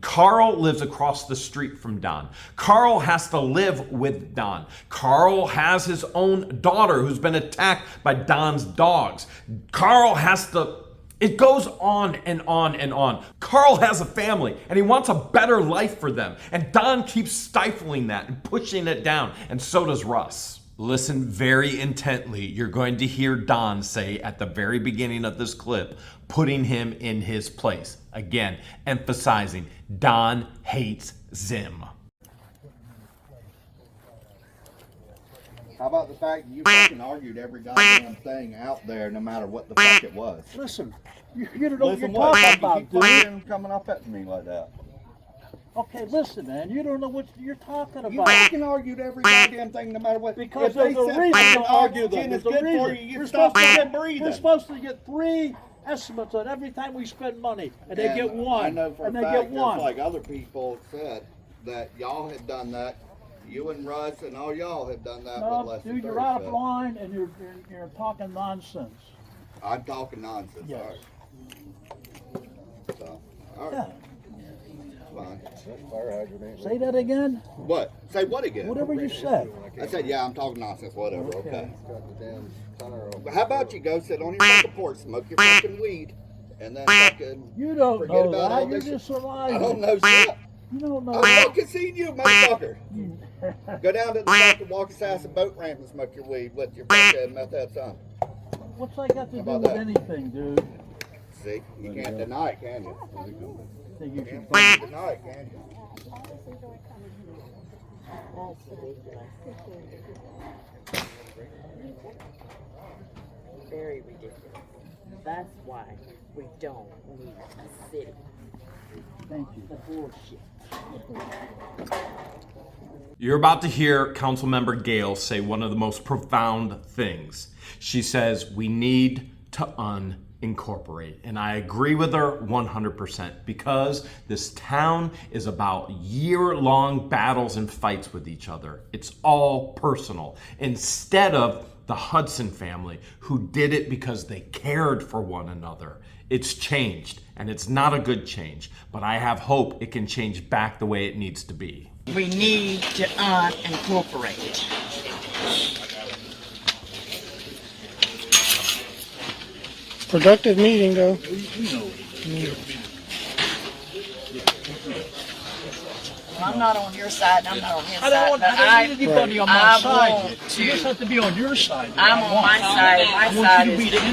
Carl lives across the street from Don. Carl has to live with Don. Carl has his own daughter who's been attacked by Don's dogs. Carl has to. It goes on and on and on. Carl has a family and he wants a better life for them. And Don keeps stifling that and pushing it down. And so does Russ. Listen very intently. You're going to hear Don say at the very beginning of this clip, putting him in his place. Again, emphasizing Don hates Zim. How about the fact that you fucking argued every goddamn thing out there, no matter what the fuck it was? Listen, you, you don't know what Listen, you're what talking the fuck you about, keep dude. fucking coming up at me like that? Okay, listen, man, you don't know what you're talking You about. fucking argued every goddamn thing, no matter what. Because if they there's a said reason fucking to argue argue, that though. it's There's good a for reason. you, you We're stop supposed to fucking get, breathing. we're supposed to get three estimates on every time we spend money, and they And get one, I know for and a they fact, get one. Just like other people said, that y'all had done that. You and Russ and all y'all had done that. with No, less than dude, you're 30 out of cents. line, and you're, you're, you're talking nonsense. I'm talking nonsense. Yes. All right. So, all Yeah, right. Fine. say that again, What? Say what again? whatever you said. I said, yeah, I'm talking nonsense. Whatever. Okay. But How about you go sit on your fucking porch, smoke your fucking weed, and then fucking. You don't Forget know about all that, you're this- just I don't surviving. know shit. You don't know I that. fucking seen you, motherfucker. Go down to the fucking Walker-Sasson boat ramp and smoke your weed with your fucking methamphetamine. What's that got to do about with that? anything, dude? See, you can't deny it, can you? Think you should You can't deny it, can you? Very ridiculous. That's why we don't need a city. thank you. The bullshit. You're about to hear Councilmember Gale say one of the most profound things. She says, We need to unincorporate. And I agree with her 100% because this town is about year long battles and fights with each other. It's all personal. Instead of the Hudson family, who did it because they cared for one another. It's changed, and it's not a good change, but I have hope it can change back the way it needs to be. We need to unincorporate. Productive meeting, though. I'm not on your side, and I'm not on his I don't side, want, but I don't I, need anybody on my I side. want You just to- have to be on your side. that I'm I on want. my side. My I side want you to is- be the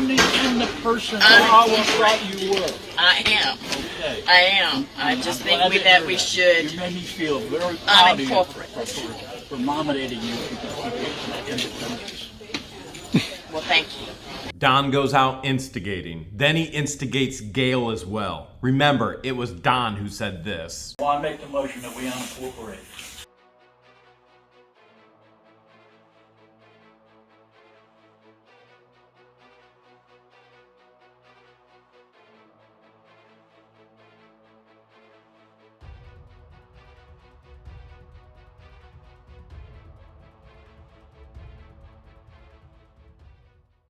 independent person that I always thought you were. I am, Okay. I am. I just I'm think glad we, to that hear we You should, made me feel very proud of you for, Unincorporate. for, for nominating you for the independence. well, thank you. Don goes out instigating. Then he instigates Gail as well. Remember, it was Don who said this. Well, I make the motion that we unincorporate.